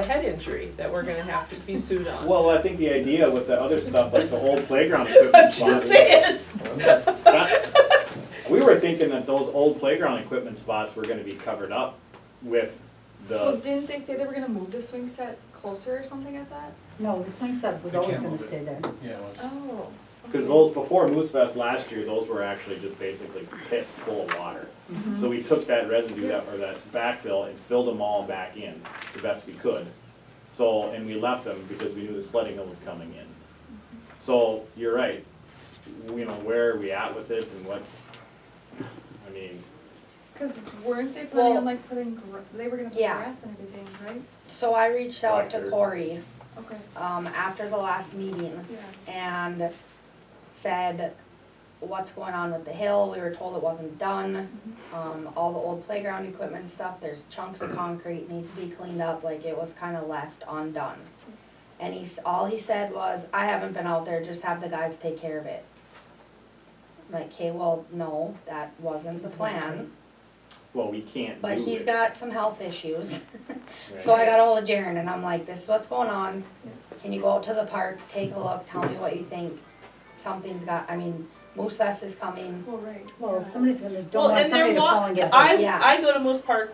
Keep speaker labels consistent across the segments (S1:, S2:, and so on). S1: a head injury that we're gonna have to be sued on.
S2: Well, I think the idea with the other stuff, like the old playground equipment.
S1: I'm
S2: spot-
S1: just saying,
S2: That- We were thinking that those old playground equipment spots were gonna be covered up with
S3: Well,
S2: the,
S3: didn't they say they were gonna move the swing set closer or something like that?
S4: No, the swing set was
S5: They
S4: always
S5: can't
S4: gonna
S5: move it.
S4: stay there.
S5: Yeah, it was.
S3: Oh.
S2: cause those, before Moose Fest last year, those were actually just basically pits full of water. So we took that residue that, or that backfill and filled them all back in the best we could. So, and we left them because we knew the sledding hill was coming in. So, you're right, you know, where are we at with it and what, I mean,
S3: Cause weren't they planning on
S6: Well-
S3: like putting, gra- they were gonna put
S6: Yeah.
S3: grass and everything, right?
S6: So I reached out
S2: Blackbird.
S6: to Corey,
S3: Okay,
S6: um, after the last meeting
S3: yeah.
S6: and said, what's going on with the hill? We were told it wasn't done. Um, all the old playground equipment and stuff, there's chunks of concrete need to be cleaned up, like it was kinda left undone. And he's, all he said was, I haven't been out there, just have the guys take care of it. Like, okay, well, no, that wasn't the plan,
S2: well, we can't do it.
S6: but he's got some health issues.
S2: right?
S6: So I got ahold of Jaren and I'm like, this is what's going on. Can you go out to the park, take a look, tell me what you think? Something's got, I mean, Moose Fest is coming.
S3: Well, right.
S4: Well,
S3: yeah.
S4: somebody's gonna, don't
S1: well,
S4: want
S1: and
S4: somebody
S1: they're
S4: to fall
S1: walk,
S4: and get hurt.
S1: I,
S6: Yeah.
S1: I go to Moose Park,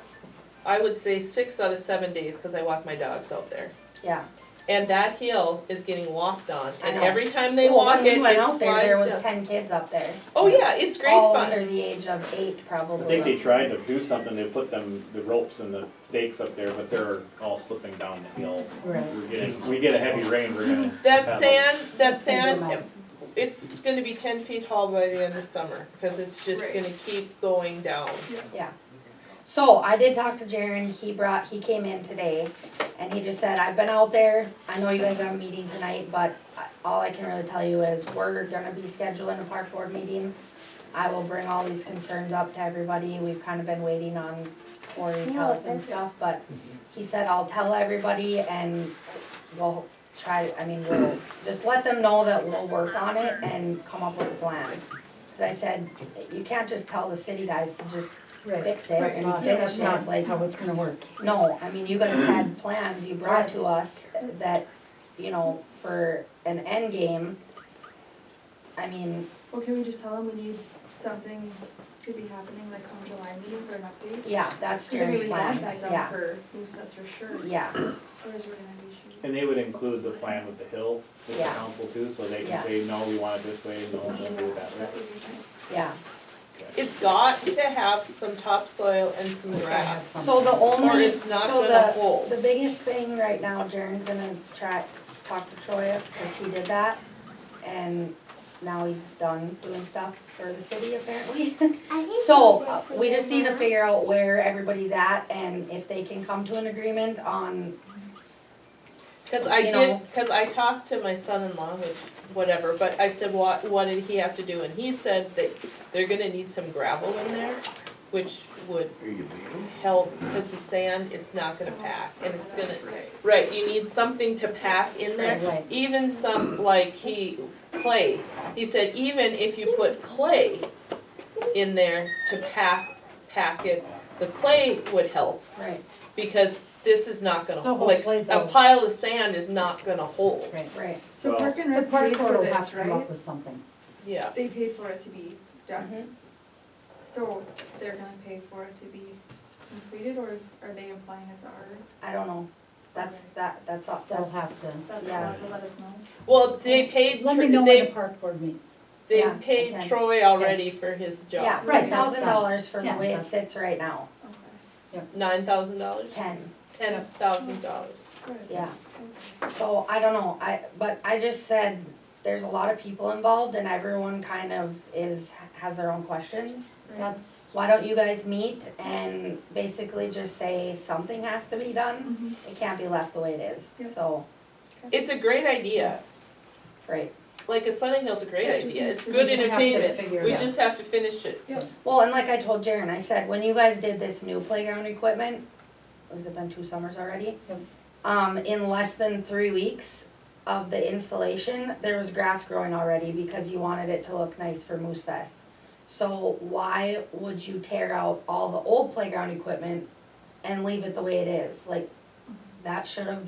S1: I would say six out of seven days, cause I walk my dogs out there.
S6: Yeah.
S1: And that hill is getting walked on,
S6: I
S1: and
S6: know.
S1: every time they
S6: Well,
S1: walk
S6: when we
S1: it,
S6: went
S1: it
S6: out there, There
S1: slides down.
S6: was ten kids up there.
S1: Oh, yeah, it's great
S6: All
S1: fun.
S6: under the age of eight
S2: I
S6: probably.
S2: think they tried to do something, they put them, the ropes and the stakes up there, but they're all slipping down the hill.
S4: Right.
S2: We're getting, we get a heavy rain, we're gonna. have
S1: That
S2: a-
S1: sand, that
S4: It's gonna be a
S1: sand,
S4: mess.
S1: it's gonna be ten feet tall by the end of summer, cause it's just
S3: Right.
S1: gonna keep going down.
S6: Yeah. So I did talk to Jaren, he brought, he came in today and he just said, I've been out there, I know you guys have a meeting tonight, but I- all I can really tell you is we're gonna be scheduling a park board meeting. I will bring all these concerns up to everybody, we've kind of been waiting on Corey's health and stuff, but he said, I'll tell everybody and we'll try, I mean, we'll, just let them know that we'll work on it and come up with a plan. Cause I said, you can't just tell the city guys to just
S4: Right.
S6: fix it
S4: That's
S6: and
S4: not,
S6: finish
S4: that's not
S6: it,
S4: how
S6: like,
S4: it's gonna work.
S6: no, I mean, you guys had plans you brought to us that, you know, for an end game. I mean,
S3: Well, can we just tell them we need something to be happening like come July meeting for an update?
S6: yeah, that's
S3: Cause I mean,
S6: Jaren's
S3: we want
S6: plan,
S3: that done
S6: yeah,
S3: for Moose Fest for sure,
S6: yeah,
S3: whereas we're gonna have issues.
S2: And they would include the plan with the hill with the
S6: Yeah.
S2: council too, so they can
S6: Yeah.
S2: say, no, we want it this way, no, we don't do
S3: Yeah,
S2: it that way.
S3: that would be nice.
S6: yeah.
S1: It's got to have some topsoil and some grass,
S6: So the
S1: Um, or
S6: only,
S1: it's not
S6: so
S1: gonna
S6: the,
S1: hold.
S6: the biggest thing right now, Jaren's gonna try, talk to Troy, cause he did that. And now he's done doing stuff for the city apparently. So, uh, we just need to figure out where everybody's at and if they can come to an agreement on,
S1: Cause I did,
S6: you know.
S1: cause I talked to my son-in-law with whatever, but I said, what, what did he have to do? And he said that they're gonna need some gravel in there, which would help, cause the sand, it's not gonna pack, and it's gonna,
S3: Right.
S1: right, you need something to pack in there.
S4: Right.
S1: Even some, like, he, clay, he said even if you put clay in there to pack, pack it, the clay would help
S6: right,
S1: because this is not gonna,
S4: So
S1: like,
S4: hopefully
S1: a
S4: they'll-
S1: pile of sand is not gonna hold.
S4: Right.
S6: right.
S3: So
S2: Well-
S3: Park and
S4: The
S3: Rec paid
S4: park board
S3: for
S4: will have
S3: this,
S4: to come
S3: right?
S4: up with something.
S1: Yeah,
S3: They paid for it to be done.
S6: Mhm.
S3: So they're gonna pay for it to be completed, or is, are they implying it's our,
S6: I don't know, that's, that, that's all,
S4: They'll
S6: that's,
S4: have to,
S3: that's what
S6: Yeah.
S3: they'll have to let us know?
S1: well, they paid,
S4: let me
S1: Tr-
S4: know when the
S1: they,
S4: park board meets.
S1: they
S6: Yeah,
S1: paid
S6: okay.
S1: Troy already for his
S6: yeah,
S1: job,
S6: nine
S3: Right,
S4: that's
S6: thousand
S4: done.
S6: dollars for the
S4: Yeah,
S6: way it
S4: that's-
S6: sits right now,
S3: Okay,
S1: nine thousand dollars,
S6: ten,
S1: ten thousand dollars.
S3: good.
S6: yeah.
S3: Okay.
S6: So, I don't know, I, but I just said, there's a lot of people involved and everyone kind of is, has their own questions.
S3: Right.
S4: That's,
S6: Why don't you guys meet and basically just say something has to be done?
S3: Mhm.
S6: It can't be left the way it
S3: Yep.
S6: is, so,
S1: It's a great idea,
S6: right.
S1: like a Sunny Hill's a great
S3: Yeah, it just
S1: idea,
S3: needs
S1: it's
S3: to-
S1: good
S4: we just have to
S1: entertainment,
S4: figure
S1: we
S4: it out.
S1: just have to finish it.
S6: Well, and like I told Jaren, I said, when you guys did this new playground equipment, has it been two summers already?
S4: Yep.
S6: Um, in less than three weeks of the installation, there was grass growing already because you wanted it to look nice for Moose Fest. So why would you tear out all the old playground equipment and leave it the way it is? Like, that should have